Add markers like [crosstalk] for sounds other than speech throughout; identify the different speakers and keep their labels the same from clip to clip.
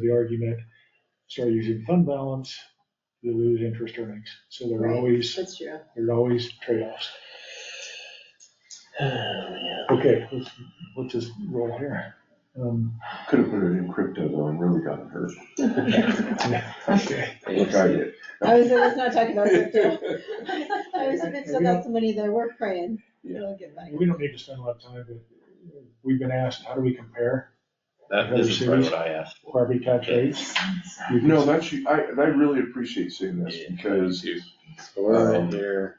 Speaker 1: the argument, start using fund balance, you lose interest earnings. So there are
Speaker 2: Right.
Speaker 1: always,
Speaker 2: That's true.
Speaker 1: there are always trade-offs.
Speaker 3: Yeah.
Speaker 1: Okay, let's, let's just roll here. Um,
Speaker 4: Could have put it in crypto though and really gotten
Speaker 5: [laughs]
Speaker 4: hurt.
Speaker 1: Okay.
Speaker 4: Look, I did.
Speaker 2: I was, I was not talking about crypto. [laughs] I was, if it's about some money there, we're praying, it'll get back.
Speaker 1: We don't need to spend a lot of time, but we've been asked, how do we compare
Speaker 3: That, this is probably what I asked for.
Speaker 1: property tax rates? You can-
Speaker 4: No, that's, you- I, I really appreciate seeing this because,
Speaker 3: Yeah,
Speaker 5: So we're
Speaker 4: Um,
Speaker 5: right here.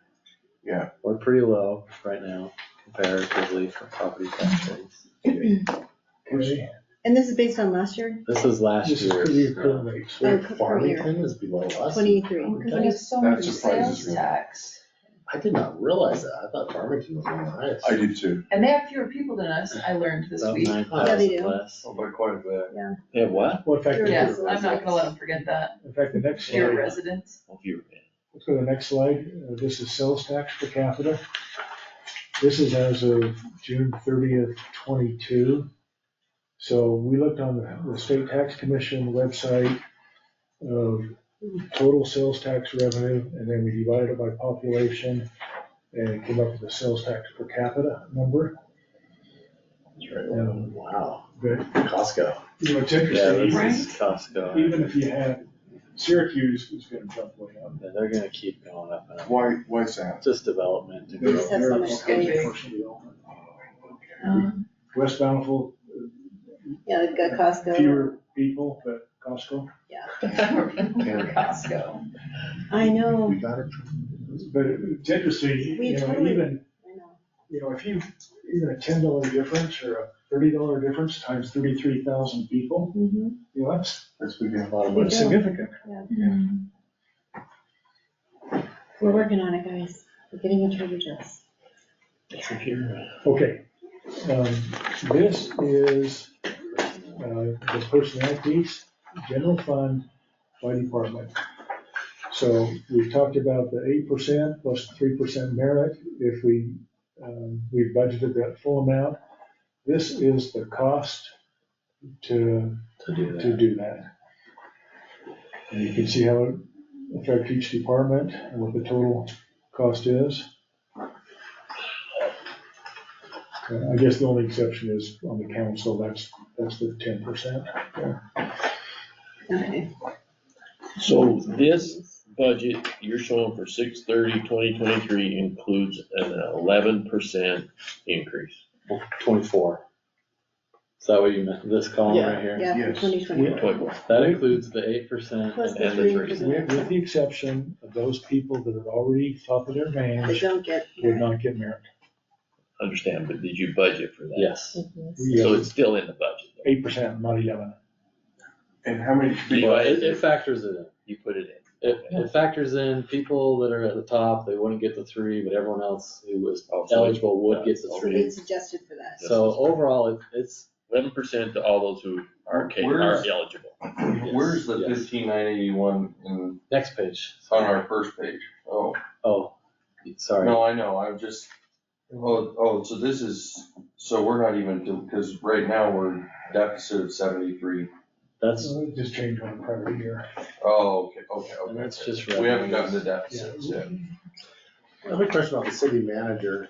Speaker 4: yeah.
Speaker 5: We're pretty low right now comparatively for property tax rates.
Speaker 1: Okay,
Speaker 2: And this is based on last year,
Speaker 5: This is last
Speaker 1: This is
Speaker 5: year's. uh,
Speaker 1: pretty current rates.
Speaker 2: Oh, current year.
Speaker 5: Farmington is below us.
Speaker 2: twenty-three.
Speaker 6: Because we have so
Speaker 4: That
Speaker 6: much
Speaker 4: surprises
Speaker 6: sales
Speaker 4: me.
Speaker 6: tax,
Speaker 5: I did not realize that. I thought Farmington was one of the highest.
Speaker 4: I did too.
Speaker 6: and they have fewer people than us, I learned this
Speaker 5: About
Speaker 6: week.
Speaker 5: 9,000
Speaker 2: Yeah, they do.
Speaker 5: less.
Speaker 4: Oh, by quite a bit.
Speaker 3: Yeah, what?
Speaker 1: Well, in fact,
Speaker 6: Yes, I'm not gonna let them forget that,
Speaker 1: in fact, the next
Speaker 6: fewer
Speaker 1: slide,
Speaker 6: residents. [laughs]
Speaker 5: Oh,
Speaker 3: Well, if you were-
Speaker 1: let's go to the next slide. Uh, This is sales tax per capita. This is as of June thirtieth, twenty-two. So we looked on the- the state tax commission website of total sales tax revenue, and then we divided it by population and came up with a sales tax per capita number.
Speaker 5: That's right. Oh, Wow,
Speaker 1: But,
Speaker 5: Costco.
Speaker 1: you know, it's
Speaker 5: Yeah,
Speaker 1: interesting,
Speaker 5: this
Speaker 1: even-
Speaker 5: is Costco.
Speaker 1: even if you had Syracuse is gonna jump way up.
Speaker 5: Yeah, They're gonna keep going up and up.
Speaker 4: Why, why is that?
Speaker 5: Just development to
Speaker 2: We just
Speaker 5: grow.
Speaker 2: have so much space.
Speaker 6: Um,
Speaker 1: West Bountiful,
Speaker 2: Yeah, they've got Costco.
Speaker 1: fewer people, but Costco.
Speaker 6: For Costco.
Speaker 2: I know,
Speaker 5: We got it.
Speaker 1: But it's interesting,
Speaker 2: We
Speaker 1: you know,
Speaker 2: totally-
Speaker 1: even,
Speaker 2: I know.
Speaker 1: you know, if you, even a ten dollar difference or a thirty dollar difference times thirty-three thousand people,
Speaker 2: Mhm.
Speaker 1: you know, that's,
Speaker 4: That's we get a lot of
Speaker 1: that's significant.
Speaker 2: We're working on it, guys. We're getting a treasure chest.
Speaker 1: Okay, um, this is, uh, the personnel piece, general fund by department. So we've talked about the eight percent plus three percent merit, if we, um, we budgeted that full amount. This is the cost to,
Speaker 5: To do
Speaker 1: to
Speaker 5: that.
Speaker 1: do that. And you can see how it affects each department and what the total cost is. Uh, I guess the only exception is on the council, that's, that's the ten percent.
Speaker 2: Okay.
Speaker 7: So this budget you're showing for 6/30, 2023 includes an eleven percent increase.
Speaker 5: Twenty-four. Is that what you meant? This column right here?
Speaker 2: Yeah,
Speaker 4: Yes.
Speaker 2: twenty twenty-four.
Speaker 7: Twenty-four.
Speaker 5: That includes the eight percent
Speaker 2: Plus the
Speaker 7: and the
Speaker 2: three
Speaker 7: three.
Speaker 2: percent
Speaker 1: With, with the exception of those people that are already top of their
Speaker 2: that
Speaker 1: range
Speaker 2: don't get.
Speaker 1: would not get merit.
Speaker 7: Understand, but did you budget for that?
Speaker 5: Yes,
Speaker 7: So it's still in the budget. though.
Speaker 1: Eight percent, not eleven.
Speaker 4: And how many,
Speaker 5: well,
Speaker 4: people-
Speaker 5: it, it factors it in.
Speaker 7: You put it in.
Speaker 5: It, it factors in people that are at the top, they wouldn't get the three, but everyone else who was
Speaker 4: Oh,
Speaker 7: Also,
Speaker 5: eligible would get the
Speaker 2: So
Speaker 5: three.
Speaker 2: they suggested for that.
Speaker 5: So overall, it- it's,
Speaker 7: Eleven percent to all those who are ca- are
Speaker 4: Where's-
Speaker 7: eligible.
Speaker 4: where's the
Speaker 5: Yes.
Speaker 4: fifteen nine eighty-one in,
Speaker 5: next page.
Speaker 4: on our first page? Oh,
Speaker 5: Oh, sorry.
Speaker 4: no, I know, I'm just, oh, oh, so this is, so we're not even, because right now we're deficit of seventy-three.
Speaker 5: That's,
Speaker 1: So it Just change on prior year.
Speaker 4: Oh, okay, okay, okay.
Speaker 5: and that's just.
Speaker 4: We haven't
Speaker 5: revenues.
Speaker 4: gotten to deficits yet.
Speaker 8: I have a question about the city manager.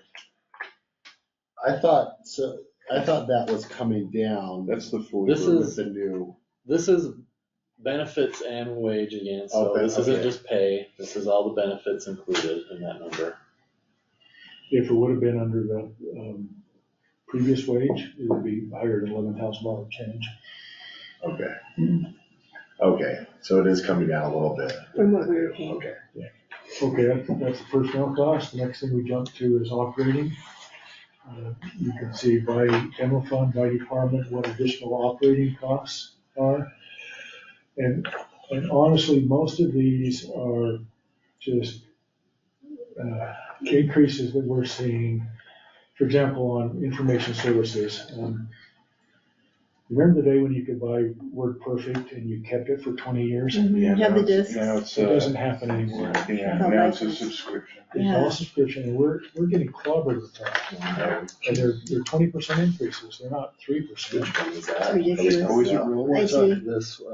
Speaker 8: I thought, so, I thought that was coming down
Speaker 4: That's the full.
Speaker 5: This
Speaker 8: with
Speaker 5: is,
Speaker 8: the new,
Speaker 5: this is benefits and wage again, so
Speaker 8: Oh, ben-
Speaker 5: this isn't
Speaker 8: okay.
Speaker 5: just pay, this is all the benefits included in that number.
Speaker 1: If it would have been under the, um, previous wage, it would be higher than eleven thousand dollar change.
Speaker 8: okay. Okay, so it is coming down a little bit.
Speaker 2: From what we were paying.
Speaker 8: Okay.
Speaker 1: Okay, that's, that's the personnel cost. The next thing we jump to is operating. Uh, You can see by general fund, by department, what additional operating costs are. And, and honestly, most of these are just uh, increases that we're seeing, for example, on information services. Um, Remember the day when you could buy WordPerfect and you kept it for twenty years? It
Speaker 4: Yeah,
Speaker 2: Mm-hmm. Have the
Speaker 4: now it's-
Speaker 2: discs.
Speaker 4: Now it's, uh,
Speaker 1: doesn't happen anymore.
Speaker 4: yeah,
Speaker 2: How
Speaker 4: now it's a
Speaker 2: license.
Speaker 4: subscription.
Speaker 1: It's
Speaker 2: Yeah.
Speaker 1: all subscription, and we're, we're getting clobbered with that. And they're, they're twenty percent increases, they're not three percent.
Speaker 5: Which one is
Speaker 2: It's
Speaker 5: that?
Speaker 2: ridiculous.
Speaker 4: Always
Speaker 2: yeah.
Speaker 4: a real-
Speaker 2: I see.
Speaker 5: This